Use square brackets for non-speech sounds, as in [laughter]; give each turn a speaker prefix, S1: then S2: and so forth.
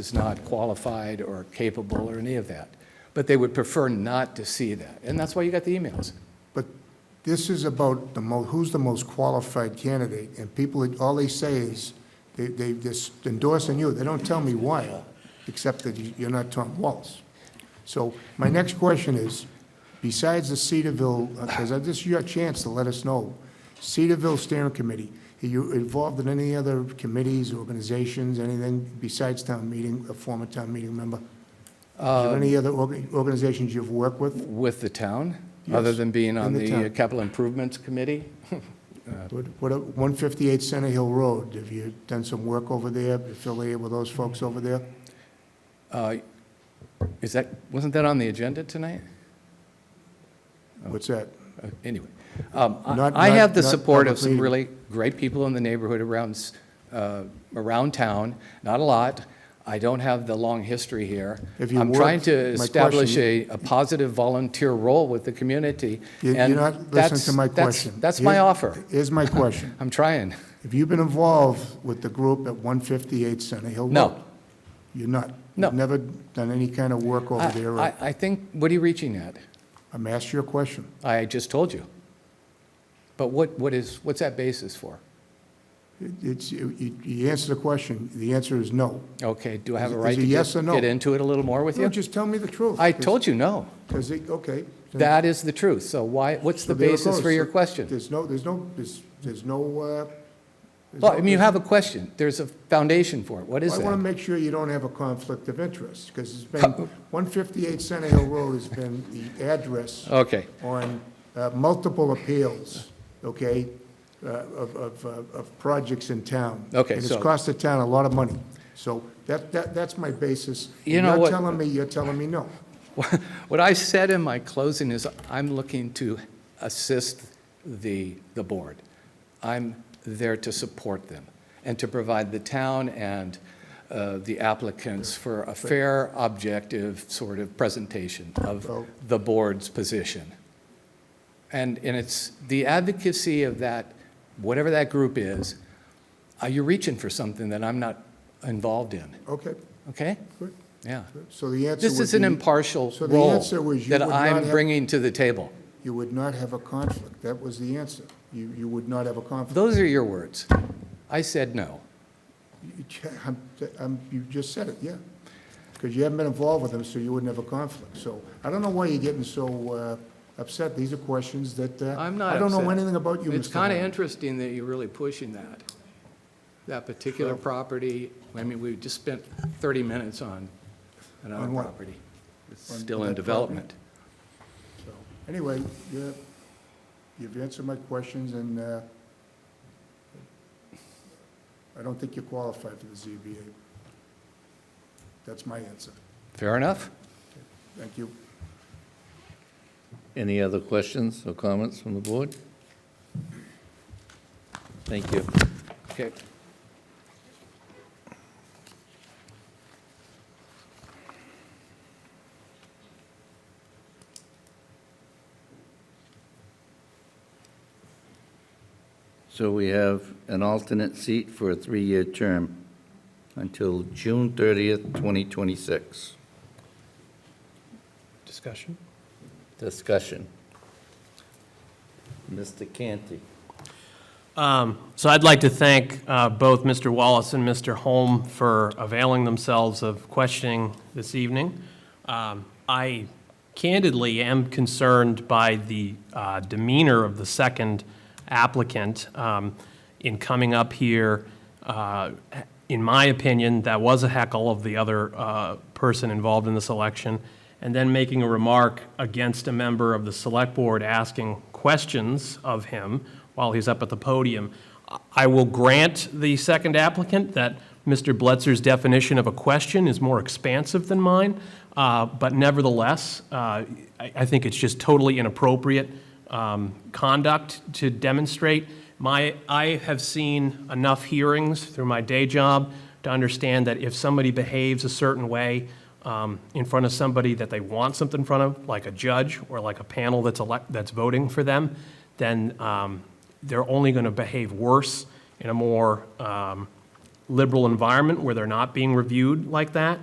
S1: is not qualified or capable or any of that. But they would prefer not to see that. And that's why you got the emails.
S2: But this is about the mo, who's the most qualified candidate, and people, all they say is, they, they just endorsing you, they don't tell me why, except that you- you're not Tom Wallace. So my next question is, besides the Cedarville, because this is your chance to let us know, Cedarville Steering Committee, are you involved in any other committees, organizations, anything besides town meeting, a former town meeting member? Is there any other orga- organizations you've worked with?
S1: With the town, other
S2: Yes,
S1: than being on
S2: in the
S1: the
S2: town.
S1: capital improvements committee?
S2: What, what, 158 Center Hill Road, have you done some work over there, affiliated with those folks over there?
S1: Uh, Is that, wasn't that on the agenda tonight?
S2: What's that?
S1: Uh, Anyway, um,
S2: Not-
S1: I I have the
S2: not- not
S1: support of some
S2: publicly.
S1: really great people in the neighborhood around, s- uh, around town, not a lot. I don't have the long history here.
S2: If you
S1: I'm trying
S2: worked-
S1: to
S2: my question-
S1: establish a, a positive volunteer role with the community,
S2: You- You're
S1: and
S2: not listening
S1: that's-
S2: to my
S1: that's-
S2: question.
S1: That's my
S2: Here-
S1: offer.
S2: Here's my
S1: [laughs]
S2: question.
S1: I'm trying.
S2: Have you been involved with the group at 158 Center Hill Road?
S1: No.
S2: You're not?
S1: No.
S2: You've never done any kind of work over
S1: I-
S2: there?
S1: I,
S2: or-
S1: I think, what are you reaching at?
S2: I'm asking you a question.
S1: I just told you. But what, what is, what's that basis for?
S2: It- It's, you, you- you answer the question, the answer is no.
S1: Okay, do I have a
S2: Is it
S1: right to
S2: a yes or
S1: get
S2: no?
S1: get into it a little more with
S2: No,
S1: you?
S2: just tell me the truth.
S1: I told you no.
S2: Because, okay. then-
S1: That is the truth. So why, what's the
S2: so there it
S1: basis for
S2: goes.
S1: your
S2: So
S1: question?
S2: There's no, there's no, there's, there's no, uh. there's
S1: Well, I
S2: no-
S1: mean, you have a question. There's a foundation for it. What is
S2: I want to
S1: that?
S2: make sure you don't have a conflict of interest, because it's been, 158 Center Hill Road has been the address
S1: Okay,
S2: on uh, multiple appeals, okay, uh, of, of, uh, of projects in town.
S1: Okay,
S2: And
S1: so-
S2: it's cost the town a lot of money. So that, that, that's my basis.
S1: You know what-
S2: You're telling me, you're telling me no.
S1: what I said in my closing is I'm looking to assist the, the board. I'm there to support them and to provide the town and uh, the applicants for a fair, objective sort of presentation of
S2: Well-
S1: the board's position. And, and it's the advocacy of that, whatever that group is, uh, you're reaching for something that I'm not involved in,
S2: Okay,
S1: okay?
S2: good.
S1: Yeah.
S2: So the answer would
S1: This
S2: be.
S1: is an impartial
S2: So the
S1: role
S2: answer was you
S1: that
S2: would not
S1: I'm
S2: have-
S1: bringing to the table.
S2: You would not have a conflict. That was the answer. You, you would not have a conflict.
S1: Those are your words. I said no.
S2: You ch- I'm- I'm- You just said it, yeah. Because you haven't been involved with them, so you wouldn't have a conflict. So I don't know why you're getting so uh, upset. These are questions that, uh,
S1: I'm not
S2: I don't know
S1: upset.
S2: anything about you, Mr.
S1: It's kind of
S2: Holland.
S1: interesting that you're really pushing that, that particular property. I mean, we just spent 30 minutes on another
S2: On what?
S1: property. It's
S2: On
S1: still in
S2: that property?
S1: development.
S2: So, Anyway, you- you've answered my questions, and uh, I don't think you're qualified for the ZBA. That's my answer.
S1: Fair enough?
S2: Thank you.
S3: Any other questions or comments from the board? Thank you.
S1: Okay.
S3: So we have an alternate seat for a three-year term until June 30th, 2026.
S4: Discussion?
S3: Discussion. Mr. Canty.
S4: Um, So I'd like to thank uh, both Mr. Wallace and Mr. Holm for availing themselves of questioning this evening. Um, I candidly am concerned by the uh, demeanor of the second applicant um, in coming up here. uh, In my opinion, that was a heckle of the other uh, person involved in this election, and then making a remark against a member of the Select Board asking questions of him while he's up at the podium. I will grant the second applicant that Mr. Bletzer's definition of a question is more expansive than mine, uh, but nevertheless, uh, I I think it's just totally inappropriate um, conduct to demonstrate. My, I have seen enough hearings through my day job to understand that if somebody behaves a certain way um, in front of somebody that they want something in front of, like a judge or like a panel that's elect, that's voting for them, then um, they're only going to behave worse in a more um, liberal environment where they're not being reviewed like that.